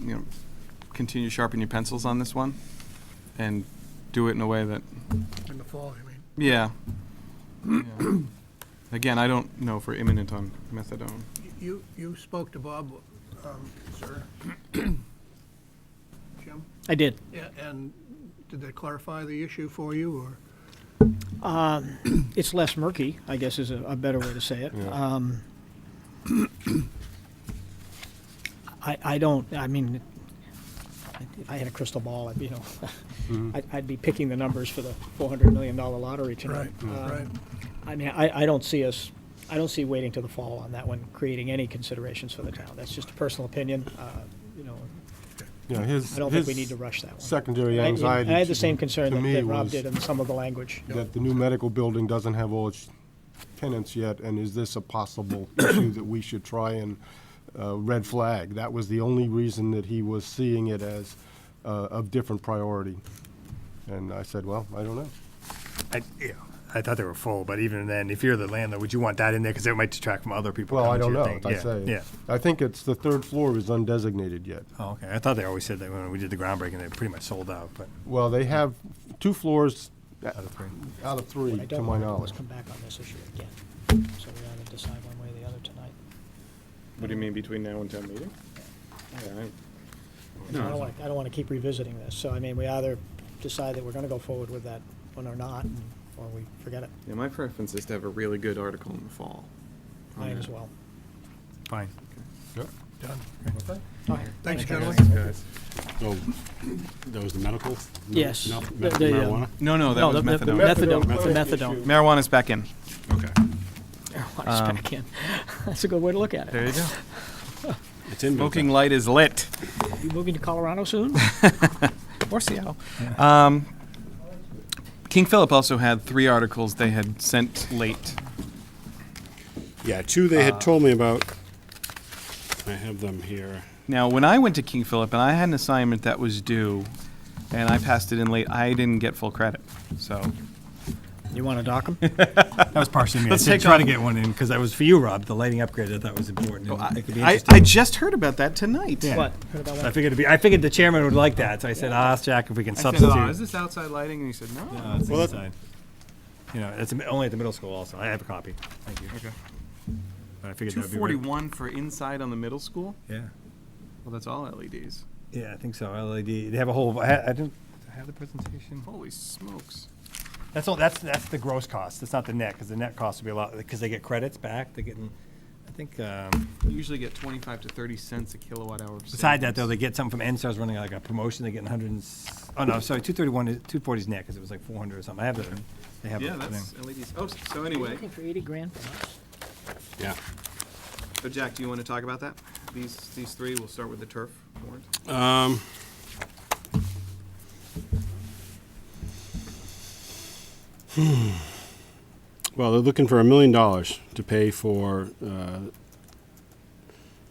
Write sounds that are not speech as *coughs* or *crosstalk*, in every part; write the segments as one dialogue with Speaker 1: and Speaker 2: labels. Speaker 1: you know, continue sharpening your pencils on this one and do it in a way that,
Speaker 2: in the fall, you mean?
Speaker 1: yeah. Yeah. Again, I don't know if we're imminent on methadone.
Speaker 2: You, you spoke to Bob, um, sir? Jim?
Speaker 3: I did.
Speaker 2: Yeah, and did they clarify the issue for you, or?
Speaker 3: It's less murky, I guess is a, a better way to say it. Um, I, I don't, I mean, if I had a crystal ball, I'd, you know,
Speaker 4: Mm-hmm.
Speaker 3: *laughs* I'd, I'd be picking the numbers for the four hundred million dollar lottery tonight. Um,
Speaker 2: Right,
Speaker 3: I mean, I, I don't see us, I don't see waiting till the fall on that one, creating any considerations for the town. That's just a personal opinion, uh, you know,
Speaker 4: Yeah, his.
Speaker 3: I don't think we
Speaker 4: his
Speaker 3: need to rush that one.
Speaker 4: Secondary
Speaker 3: I- you know,
Speaker 4: anxiety.
Speaker 3: I had the
Speaker 4: to-
Speaker 3: same concern
Speaker 4: to
Speaker 3: that
Speaker 4: me
Speaker 3: that Rob
Speaker 4: was
Speaker 3: did in some of the language.
Speaker 4: That the new medical building doesn't have all its tenants yet, and is this a possible *coughs* issue that we should try and, uh, red flag? That was the only reason that he was seeing it as, uh, of different priority. And I said, well, I don't know.
Speaker 5: I, yeah, I thought they were full, but even then, if you're the landlord, would you want that in there? Because it might detract from other people.
Speaker 4: Well, I
Speaker 5: coming to
Speaker 4: don't
Speaker 5: your
Speaker 4: know,
Speaker 5: thing.
Speaker 4: as I
Speaker 5: Yeah,
Speaker 4: say.
Speaker 5: Yeah.
Speaker 4: I think it's, the third floor is undesignated yet.
Speaker 5: Oh, okay. I thought they always said that when we did the groundbreaking, they pretty much sold out, but
Speaker 4: Well, they have two floors
Speaker 5: out of three.
Speaker 4: out of
Speaker 3: What
Speaker 4: three,
Speaker 3: I
Speaker 4: to
Speaker 3: don't
Speaker 4: my
Speaker 3: want to do is
Speaker 4: knowledge. Hmm.
Speaker 3: come back on this issue again, so we either decide one way or the other tonight.
Speaker 1: What do you mean between now and town meeting? Yeah, I-
Speaker 3: I don't want, I don't want to keep revisiting this, so I mean, we either decide that we're going to go forward with that one or not, and- or we forget it,
Speaker 1: Yeah, my preference is to have a really good article in the fall.
Speaker 3: might
Speaker 1: Okay.
Speaker 3: as well.
Speaker 5: Fine.
Speaker 2: done.
Speaker 3: Thanks,
Speaker 2: Thanks, gentlemen.
Speaker 1: guys.
Speaker 6: So, Oh, that was the medical? No-
Speaker 3: Yes.
Speaker 6: no-
Speaker 3: The-
Speaker 6: medical
Speaker 3: the, um,
Speaker 6: Marijuana?
Speaker 1: No, no, that was methadone.
Speaker 3: Methadone,
Speaker 4: methadone, methadone
Speaker 3: methadone.
Speaker 4: issue.
Speaker 1: Marijuana's back in.
Speaker 6: Okay.
Speaker 3: Marijuana's back in. *laughs* That's a good way to look at it.
Speaker 1: There you go.
Speaker 6: It's in.
Speaker 1: Smoking light is lit.
Speaker 3: You moving to Colorado soon?
Speaker 1: or Seattle. Um, King Philip also had three articles they had sent late.
Speaker 6: Yeah, two they had told me about. I have them here.
Speaker 1: Now, when I went to King Philip and I had an assignment that was due, and I passed it in late, I didn't get full credit. So
Speaker 3: You want to dock them?
Speaker 5: That was partially me. I
Speaker 1: Let's
Speaker 5: said
Speaker 1: take
Speaker 5: try to
Speaker 1: off-
Speaker 5: get one in because that was for you, Rob. The lighting upgrade Oh, I thought was important. and
Speaker 1: I,
Speaker 5: it could be
Speaker 1: I,
Speaker 5: interesting.
Speaker 1: I just heard about that tonight.
Speaker 5: Yeah.
Speaker 3: What, heard about
Speaker 5: I
Speaker 3: one?
Speaker 5: figured it'd be, I figured the chairman would like that, so I said, ask Jack if we
Speaker 1: I
Speaker 5: can
Speaker 1: said,
Speaker 5: substitute.
Speaker 1: oh, is this outside lighting? And he said, no.
Speaker 5: No, it's
Speaker 6: Well, that-
Speaker 5: inside. You know, it's only at the middle school also. I have a copy. Thank you.
Speaker 1: Okay.
Speaker 5: But I figured
Speaker 1: Two
Speaker 5: that'd be. right-
Speaker 1: forty-one for inside on the middle school.
Speaker 5: Yeah.
Speaker 1: Well, that's all E LEDs.
Speaker 5: Yeah, I think so. LED. They have a whole. I, ha- I didn't I have the presentation.
Speaker 1: Holy smokes!
Speaker 5: That's all. That's that's the gross cost. That's not the net because the net cost would be a lot because they get credits back. They're getting. I think. Um,
Speaker 1: You usually get twenty-five to thirty cents a kilowatt hour.
Speaker 5: beside that though, they get something from NSTARS running like a promotion. They're getting 100. And, s- oh no, sorry, 231 is 240 is net because it was like 400 or something. I have the. They have
Speaker 1: yeah,
Speaker 5: the thing.
Speaker 1: that's LEDs. Oh, so
Speaker 3: Are you
Speaker 1: anyway,
Speaker 3: Looking for eighty grand? for us?
Speaker 6: Yeah.
Speaker 1: so Jack, do you want to talk about that? These these three. We'll start with the turf warrant.
Speaker 6: Um, hmm. Well, they're looking for a million dollars to pay for, uh,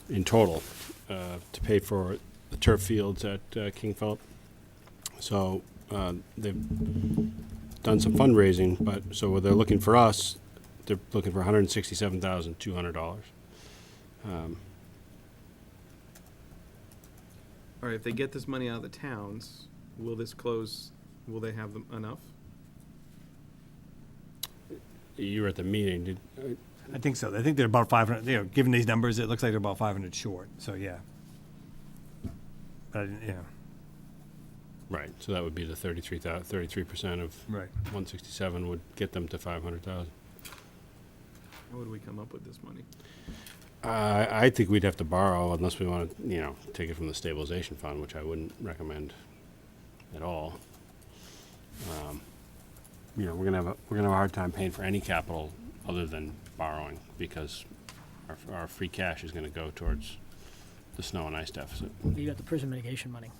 Speaker 6: in total, uh, to pay for the turf fields at uh, King Philip. So uh, they've done some fundraising, but, so they're looking for us, they're looking for $167,200. Um,
Speaker 1: All right, if they get this money out of the towns, will this close? Will they have them enough?
Speaker 6: You were at the meeting, did,
Speaker 5: I think so. I think they're about 500. You know, given these numbers, it looks like they're about 500 short. So yeah. But I didn't, yeah.
Speaker 6: right, so that would be the 33, 33% of
Speaker 5: Right.
Speaker 6: 167 would get them to 500,000.
Speaker 1: How would we come up with this money?
Speaker 6: I, I think we'd have to borrow unless we want to, you know, take it from the stabilization fund, which I wouldn't recommend at all. Um, You know, we're gonna have, a we're gonna have a hard time paying for any capital other than borrowing because our, f- our free cash is gonna go towards the snow and ice deficit.
Speaker 3: You got the prison mitigation money.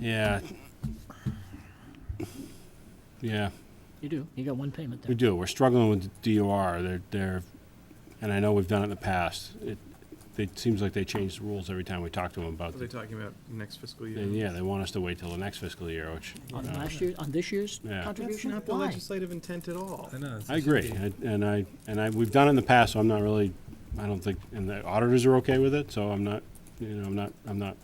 Speaker 6: Yeah. Yeah.
Speaker 3: You do. You got one payment
Speaker 6: We
Speaker 3: there.
Speaker 6: do. We're struggling with the DOR. They're, they're, and I know we've done it in the past. It, it seems like they change the rules every time we talk to them about.
Speaker 1: What are they
Speaker 6: it.
Speaker 1: talking about next fiscal year?
Speaker 6: And yeah, they want us to wait till the next fiscal year, which, uh, you
Speaker 3: On
Speaker 6: know,
Speaker 3: last year, on this year's
Speaker 6: Yeah.
Speaker 1: That's
Speaker 3: contribution?
Speaker 1: not the
Speaker 3: Why?
Speaker 1: legislative intent at all.
Speaker 5: I know.
Speaker 6: I agree. I- And I, and I, we've done it in the past, so I'm not really, I don't think, and the auditors are okay with it, so I'm not, you know, I'm not, I'm not